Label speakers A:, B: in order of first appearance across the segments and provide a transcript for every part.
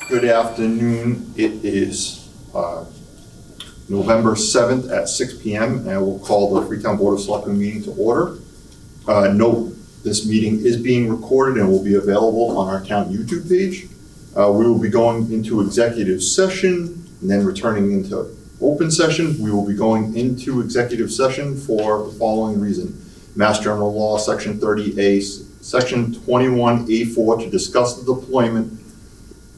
A: Saturday afternoon. It is uh, November 7th at six PM, and I will call the Freetown Board of Selectmen meeting to order. Uh, Note, this meeting is being recorded and will be available on our town YouTube page. Uh, We will be going into executive session and then returning into open session. We will be going into executive session for the following reason. Mass General Law, Section 30A, Section 21A4, to discuss the deployment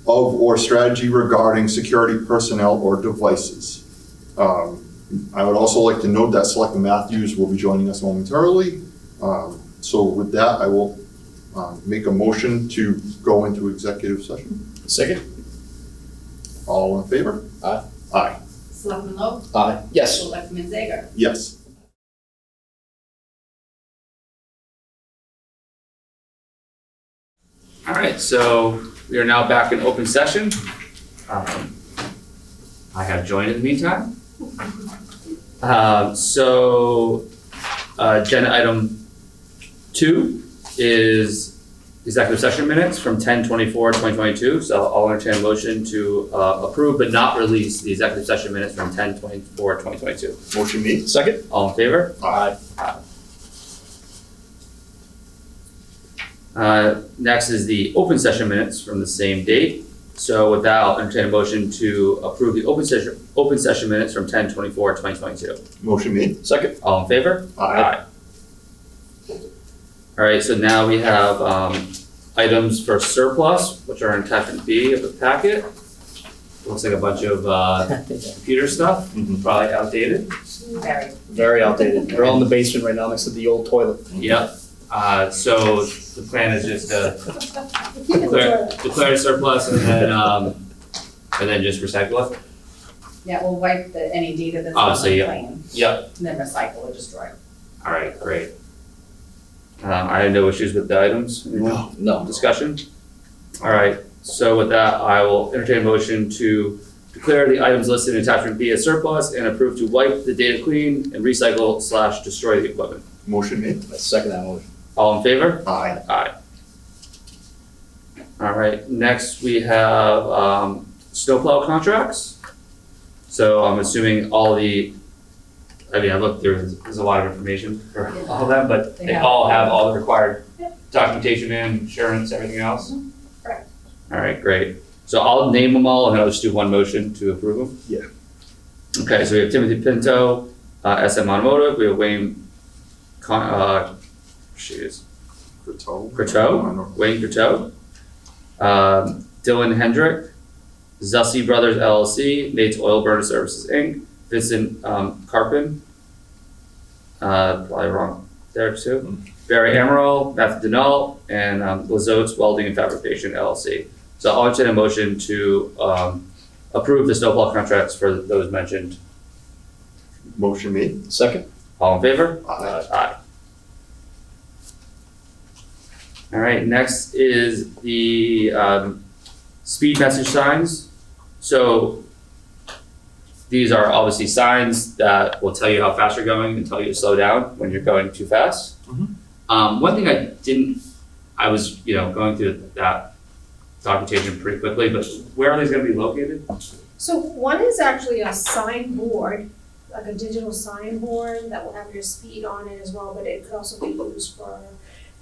A: of or strategy regarding security personnel or devices. Um, I would also like to note that Selectman Matthews will be joining us momentarily. Um, So with that, I will um, make a motion to go into executive session.
B: Second?
A: All in favor?
B: Aye.
A: Aye,
C: Selectman Loeb?
B: Aye. Yes.
C: Selectman Zager?
A: yes.
D: All right, so we are now back in open session. Um, I have joined in the meantime. Um, So uh, agenda item two is executive session minutes from 10:24, 2022. So I'll entertain a motion to uh, approve but not release the executive session minutes from 10:24, 2022.
A: Motion made.
B: Second?
D: All in favor?
B: Aye.
D: Uh, next is the open session minutes from the same date. So with that, I'll entertain a motion to approve the open session, open session minutes from 10-24-2022.
A: Motion made.
B: Second?
D: All in favor? All right, so now we have, um, items for surplus, which are in attachment B of the packet. Looks like a bunch of, uh, computer stuff,
A: Mhm.
D: probably outdated.
C: Barry?
B: Very outdated. They're all in the basement right now next to the old toilet.
D: Yep. Uh, so the plan is just to Declare, declare a surplus and then, um, and then just recycle it?
C: Yeah, we'll wipe the, any data that's
D: Oh,
C: on
D: so
C: the
D: yeah.
C: plan,
D: Yep.
C: and then recycle or destroy.
D: All right, great. Um, I have no issues with the items,
A: No.
B: No.
D: discussion? All right, so with that, I will entertain a motion to declare the items listed in attachment B as surplus and approve to wipe the data clean and recycle slash destroy the equipment.
A: Motion made.
B: I second that motion.
D: All in favor?
A: Aye.
D: All right, next we have, um, snowplow contracts. So I'm assuming all the, I mean, I looked, there's, there's a lot of information for all of them, but
C: They
D: they
C: have-
D: all have all the required
C: Yeah. Mm-hmm,
D: documentation and insurance, everything else?
C: correct.
D: All right, great. So I'll name them all and then I'll just do one motion to approve them? Yeah. Okay, so we have Timothy Pinto, uh, SM Automotive, we have Wayne Con, uh, shoot,
A: Croteau.
D: Croteau?
A: I don't-
D: Wayne Coteau, um, Dylan Hendrick, Zussi Brothers LLC, Nate's Oil Burner Services Inc., Vincent um, Carpin, uh, probably wrong there too, Barry Amaral, Matthew Denault, and um, Lazote's Welding and Fabrication LLC. So I'll entertain a motion to um, approve the snowplow contracts for those mentioned.
A: Motion made.
B: Second?
D: All in favor?
A: Aye.
D: Aye. All right, next is the um speed message signs. So these are obviously signs that will tell you how fast you're going and tell you to slow down when you're going too fast.
A: Mhm.
D: Um, one thing I didn't, I was, you know, going through that documentation pretty quickly, but where are these gonna be located?
E: So one is actually a sign board, like a digital sign board that will have your speed on it as well, but it could also be used for,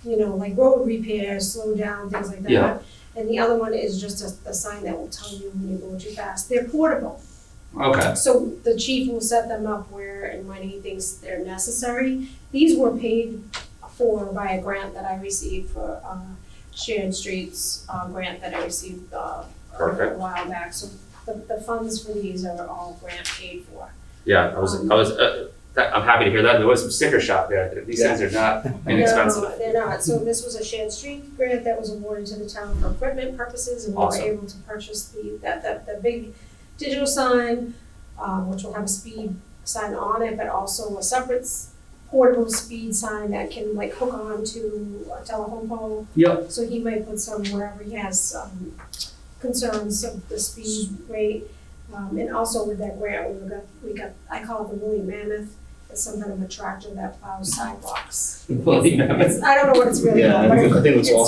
E: you know, like road repairs, slow down, things like that.
D: Yeah.
E: And the other one is just a, a sign that will tell you when you're going too fast. They're portable.
D: Okay,
E: So the chief will set them up where and when he thinks they're necessary. These were paid for by a grant that I received for, uh, Sharon Streets, uh, grant that I received, uh,
D: Perfect.
E: a while back, so the, the funds for these are all grant paid for.
D: yeah, I was, I was, uh, that, I'm happy to hear that. There was some sticker shock there. These things are not inexpensive.
E: No, they're not, so this was a Shan Street grant that was awarded to the town for equipment purposes, and we were
D: Awesome.
E: able to purchase the, that, that, the big digital sign, um, which will have a speed sign on it, but also a separate s- portable speed sign that can like hook on to a telephone pole.
D: Yep.
E: So he might put some wherever he has, um, concerns of the speed rate. Um, and also with that grant, we got, we got, I call it the Willie Mammoth, it's some kind of a tractor that plows sidewalks.
D: Well, you know,
E: It's- I don't know what it's really
B: Yeah,
E: called,
B: I
E: but
B: think- I think it's
E: it's-